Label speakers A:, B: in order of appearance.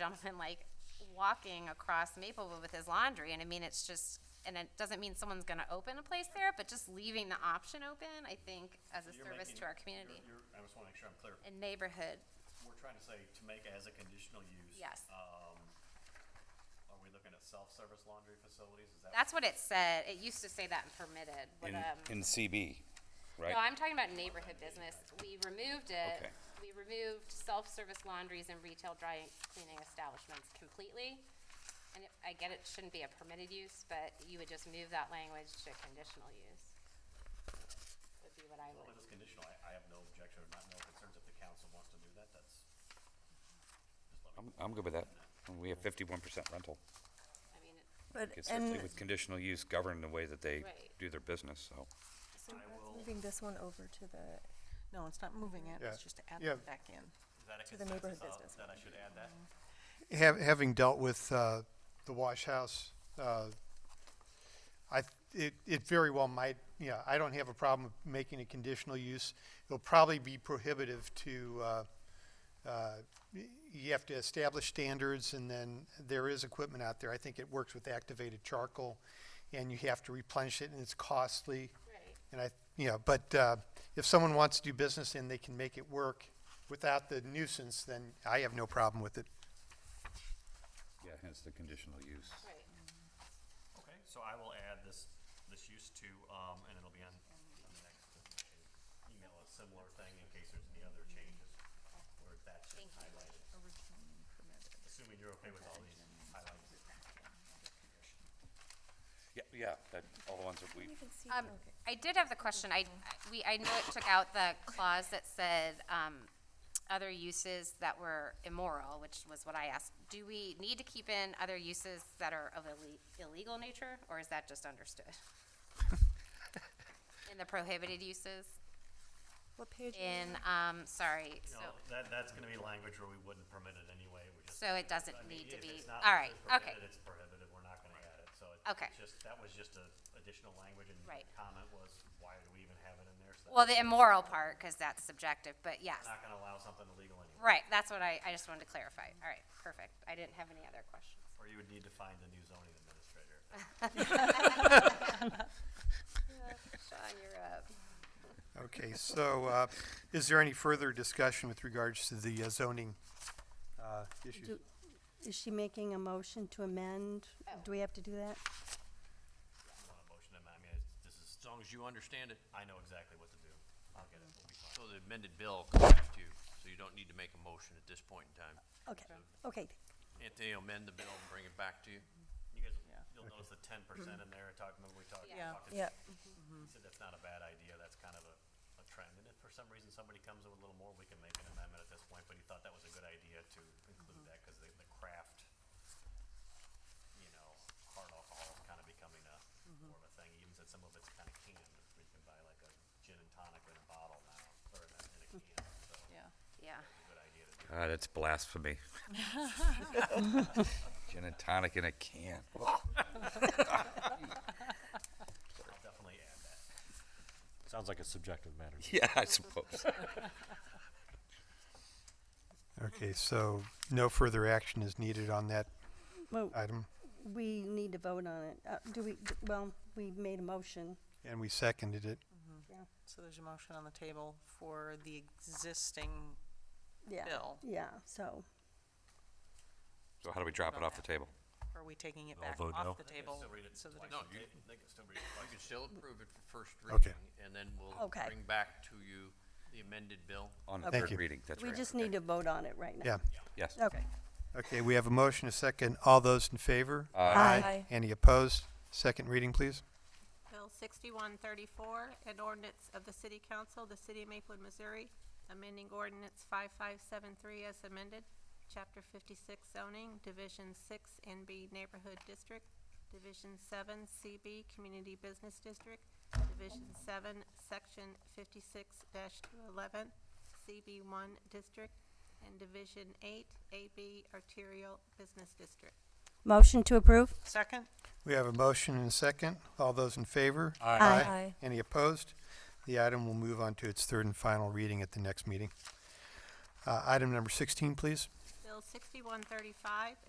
A: gentleman like walking across Maplewood with his laundry, and I mean, it's just, and it doesn't mean someone's gonna open a place there, but just leaving the option open, I think, as a
B: You're
A: service to
B: making-
A: our community
B: you're- you're- I just want to make sure I'm clear.
A: and neighborhood.
B: We're trying to say to make as a conditional use.
A: Yes.
B: Um, are we looking at self-service laundry facilities? Is that?
A: That's what it said, it used to say that in permitted, but,
C: in,
A: um,
C: in CB, right?
A: no, I'm talking about neighborhood business, we removed it.
C: Okay.
A: We removed self-service laundries and retail drying, cleaning establishments completely. And it- I get it shouldn't be a permitted use, but you would just move that language to conditional use. Would be what I
B: Well,
A: would.
B: it is conditional. I, I have no objection or not no concerns if the council wants to do that. That's. just let me-
C: I'm, I'm good with that. We have fifty-one percent rental.
A: I mean, it-
D: But,
C: It's
D: and,
C: certainly with conditional use governed the way that they
A: Right.
C: do their business, so.
D: so that's moving this one over to the,
E: No, it's not moving it,
F: Yeah.
E: it's just to add
F: Yeah.
E: that back in.
B: Is that a
D: the neighborhood
B: consensus of-
D: business
B: that I should add that?
F: Hav- Having dealt with uh, the wash house, uh, I, it, it very well might, yeah, I don't have a problem making a conditional use. It'll probably be prohibitive to, uh, uh, y- you have to establish standards and then there is equipment out there. I think it works with activated charcoal and you have to replenish it and it's costly.
A: Right.
F: And I, you know, but uh, if someone wants to do business and they can make it work without the nuisance, then I have no problem with it.
C: Yeah, hence the conditional use.
A: Right.
B: Okay, so I will add this, this use to, um, and it'll be on, on the next, uh, email a similar thing in case there's any other changes or if that's just highlighted. Assuming you're okay with all these highlights.
C: Yeah, yeah, that, all the ones that we,
A: Um, I did have the question, I, we, I know it took out the clause that said, um, other uses that were immoral, which was what I asked. Do we need to keep in other uses that are of ille- illegal nature, or is that just understood? In the prohibited uses,
D: what page? is it?
A: in, um, sorry, so,
B: No, that, that's gonna be language where we wouldn't permit it anyway, we just.
A: so it doesn't
B: I
A: need
B: mean,
A: to
B: if
A: be,
B: it's not
A: all right,
B: prohibited,
A: okay,
B: It's prohibited, we're not gonna add it, so it-
A: Okay.
B: it's just, that was just a additional language and the
A: Right.
B: comment was, why do we even have it in there? So
A: well, the immoral part, cause that's subjective, but yes.
B: We're not gonna allow something illegal anyway,
A: Right, that's what I, I just wanted to clarify. All right, perfect. I didn't have any other questions.
B: or you would need to find a new zoning administrator.
A: Sean, you're up.
F: Okay, so uh, is there any further discussion with regards to the uh, zoning uh, issues?
G: Do- Is she making a motion to amend? Do we have to do that?
B: on a motion amendment, I mean, it's, this is,
H: As long as you understand it,
B: I know exactly what to do. I'll get it, we'll be fine.
H: so the amended bill comes back to you, so you don't need to make a motion at this point in time.
G: Okay, okay.
H: Anthony, will amend the bill and bring it back to you.
B: You guys,
E: Yeah.
B: you'll notice the ten percent in there, I talked, remember we talked? we
E: Yeah.
B: talked to-
D: Yeah,
B: He said that's not a bad idea, that's kind of a, a trend, and if for some reason somebody comes in with a little more, we can make an amendment at this point, but he thought that was a good idea to include that, cause the, the craft, you know, hard alcohol is kinda becoming a, more of a thing, he even said some of it's kinda canned, where you can buy like a gin and tonic in a bottle now, or in a, in a can, so it's
E: Yeah.
A: Yeah.
B: a good idea to do.
C: God, Ah, that's blasphemy. Gin and tonic in a can.
B: I'll definitely add that.
I: Sounds like a subjective matter.
C: Yeah, I suppose.
F: Okay, so no further action is needed on that
G: Well,
F: item,
G: we need to vote on it. Uh, do we, well, we made a motion.
F: and we seconded it.
E: So there's a motion on the table for the existing
G: Yeah.
E: bill.
G: Yeah, so,
C: So how do we drop it off the table?
E: Are we taking it back
I: vote no.
E: off the table?
B: Still read it
E: so that
B: twice.
E: it-
H: No,
B: They- They can still read it twice.
H: You can still approve it for first
F: Okay.
H: reading, and then we'll
G: Okay.
H: bring back to you the amended bill.
C: On the
F: Thank
C: third
F: you.
C: reading, that's
G: we
C: right.
G: just
C: okay.
G: need to vote on it right
F: Yeah.
G: now.
C: Yes.
G: Okay.
F: Okay, we have a motion, a second. All those in favor?
D: Aye. Aye.
F: Any opposed? Second reading, please.
J: Bill sixty-one thirty-four, an ordinance of the City Council, of the City of Maplewood, Missouri, amending ordinance five-five-seven-three as amended, chapter fifty-six zoning, division six NB Neighborhood District, division seven CB Community Business District, division seven, section fifty-six two eleven, CB one District, and division eight AB Arterial Business District.
G: Motion to approve?
E: Second?
F: We have a motion and a second. All those in favor?
G: Aye.
D: Aye.
F: Any opposed? The item will move on to its third and final reading at the next meeting. Uh, Item number 16, please.
J: Bill Bill sixty-one thirty-five,